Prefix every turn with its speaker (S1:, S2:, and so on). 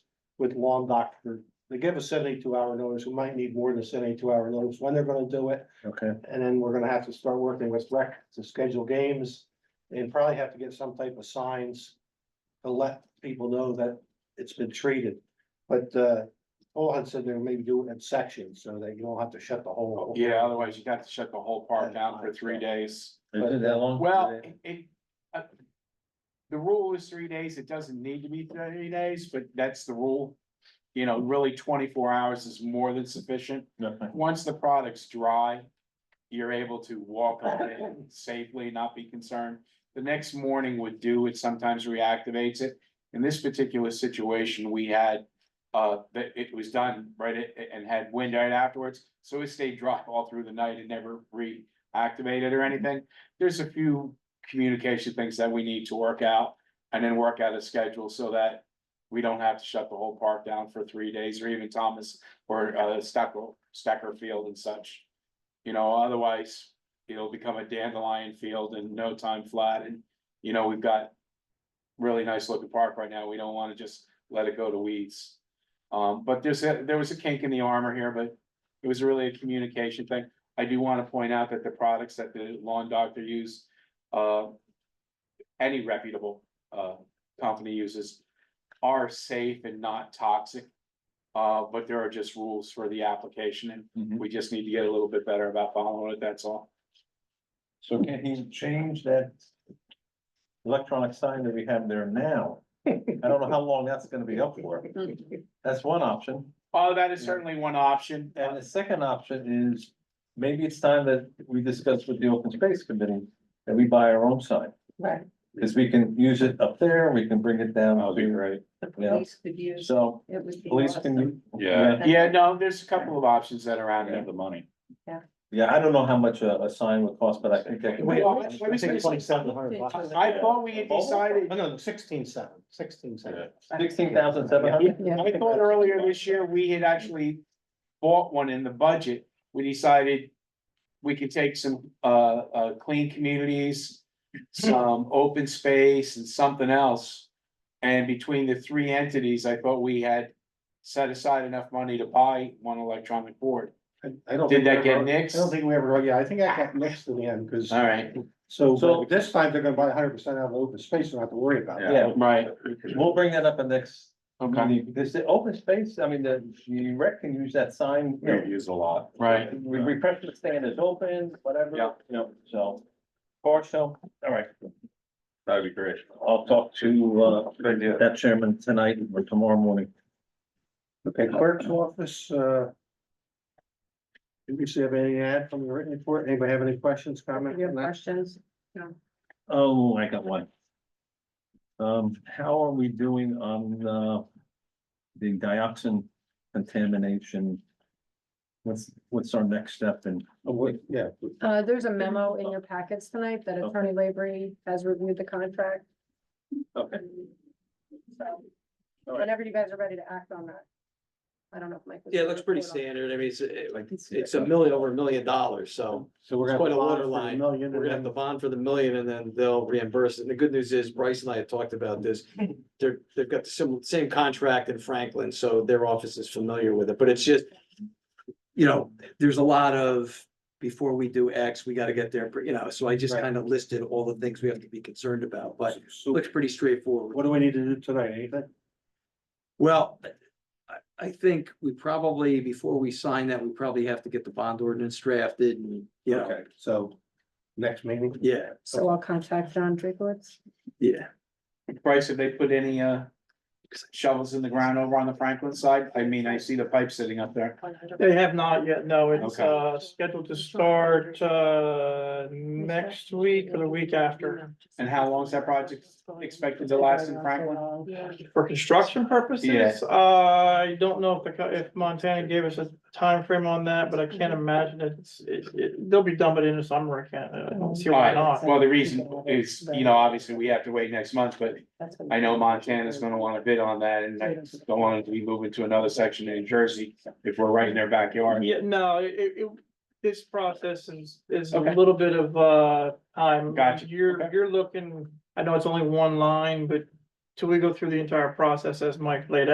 S1: with Long Doctor. They give us seventy-two hour notice, we might need more than seventy-two hour notice when they're gonna do it,
S2: Okay,
S1: and then we're gonna have to start working with rec to schedule games. And probably have to get some type of signs to let people know that it's been treated. But uh, Paul had said they would maybe do it in sections so that you don't have to shut the whole.
S3: Yeah, otherwise you got to shut the whole park down for three days.
S2: is it that long?
S3: Well, it- it, uh, the rule is three days. It doesn't need to be three days, but that's the rule. You know, really twenty-four hours is more than sufficient.
S2: Okay.
S3: Once the product's dry, you're able to walk on it safely, not be concerned. The next morning would do, it sometimes reactivates it. In this particular situation, we had, uh, that it was done, right, a- a- and had wind right afterwards. So it stayed dry all through the night and never reactivated or anything. There's a few communication things that we need to work out and then work out a schedule so that we don't have to shut the whole park down for three days or even Thomas or uh Stecker, Stecker Field and such. You know, otherwise, it'll become a dandelion field in no time flat and, you know, we've got. Really nice looking park right now, we don't wanna just let it go to weeds. Um, but there's a, there was a kink in the armor here, but it was really a communication thing. I do wanna point out that the products that the lawn doctor used, uh. Any reputable uh company uses are safe and not toxic. Uh, but there are just rules for the application and
S4: Mm-hmm.
S2: Mhm.
S3: we just need to get a little bit better about following it, that's all.
S2: So can he change that electronic sign that we have there now? I don't know how long that's gonna be up for. That's one option.
S3: Oh, that is certainly one option.
S2: And the second option is maybe it's time that we discuss with the open space committee that we buy our own sign.
S5: Right,
S2: Cause we can use it up there, we can bring it down.
S3: That would be great.
S5: the
S2: Yeah.
S5: police could use,
S2: So
S5: it would be
S2: police
S5: awesome.
S2: can.
S4: Yeah.
S3: Yeah, no, there's a couple of options that are out there.
S4: the money.
S2: Yeah, I don't know how much a, a sign would cost, but I think that could.
S1: Wait,
S3: Well, let me
S1: I
S3: say
S1: think twenty-seven hundred bucks.
S3: I thought we had decided,
S1: No, no, sixteen seven, sixteen seven.
S2: Sixteen thousand seven hundred?
S3: I thought earlier this year, we had actually bought one in the budget. We decided we could take some uh uh clean communities, some open space and something else. And between the three entities, I thought we had set aside enough money to buy one electronic board.
S1: I I don't.
S3: Did
S1: think
S3: that
S1: we
S3: get
S1: ever-
S3: nixed?
S1: I don't think we ever, yeah, I think I got nixed in the end, because,
S3: All right,
S1: so,
S2: So-
S1: so this time they're gonna buy hundred percent out of the open space, and not have to worry about it.
S2: Yeah,
S3: right,
S2: We'll bring that up in next.
S3: Okay.
S2: meeting. This, the open space, I mean, the, the rec can use that sign. you know,
S4: use a lot.
S3: right.
S2: We, we press the stand is open, whatever.
S3: Yeah.
S2: You know, so. Or so, all right,
S4: That'd be great.
S2: I'll talk to, uh,
S4: Good idea.
S2: that chairman tonight or tomorrow morning.
S1: Okay, clerk's office, uh. Do we see have anything to add from the written report? Anybody have any questions, comment?
S5: Your questions,
S2: Oh, I got one. Um, how are we doing on, uh, the dioxin contamination? What's, what's our next step in?
S1: Oh, wait, Yeah,
S5: uh, there's a memo in your packets tonight that Attorney Laborie has reviewed the contract.
S2: Okay.
S5: So,
S2: All right.
S5: Whenever you guys are ready to act on that. I don't know if Mike. was
S6: Yeah, it
S5: gonna
S6: looks pretty
S5: report on it.
S6: standard. I mean, it's, it's, it's a million, over a million dollars, so
S1: so we're
S6: It's
S1: gonna.
S6: quite a
S1: bond
S6: water
S1: for the
S6: line.
S1: million and
S6: we're gonna have
S1: then-
S6: to bond for the million and then they'll reimburse it. And the good news is Bryce and I had talked about this. They're, they've got the same, same contract in Franklin, so their office is familiar with it, but it's just, you know, there's a lot of, before we do X, we gotta get there, you know, so I just
S1: Right.
S6: kind of listed all the things we have to be concerned about, but it
S1: So
S6: looks pretty straightforward.
S1: what do we need to do tonight? Anything?
S6: Well, I, I think we probably, before we sign that, we probably have to get the bond ordinance drafted and, you know,
S1: Okay, so next meeting?
S6: yeah,
S5: So I'll contact John Drakewitz.
S6: yeah.
S3: Bryce, have they put any uh shovels in the ground over on the Franklin side? I mean, I see the pipe sitting up there.
S7: They have not yet, no, it's
S3: Okay.
S7: uh scheduled to start uh next week or the week after.
S3: And how long is that project expected to last in Franklin?
S7: For construction purposes,
S3: Yeah.
S7: I don't know if the, co- if Montana gave us a time frame on that, but I can't imagine it's, it, it, they'll be done by the end of summer, I can't, I don't see why
S3: Alright,
S7: not.
S3: well, the reason is, you know, obviously, we have to wait next month, but I know Montana's gonna wanna bid on that, and I don't want it to be moving to another section in New Jersey if we're right in their backyard.
S7: Yeah, no, it, it, this process is, is a
S3: Okay.
S7: little bit of uh time.
S3: Gotcha,
S7: You're,
S3: okay.
S7: you're looking, I know it's only one line, but till we go through the entire process as Mike laid out.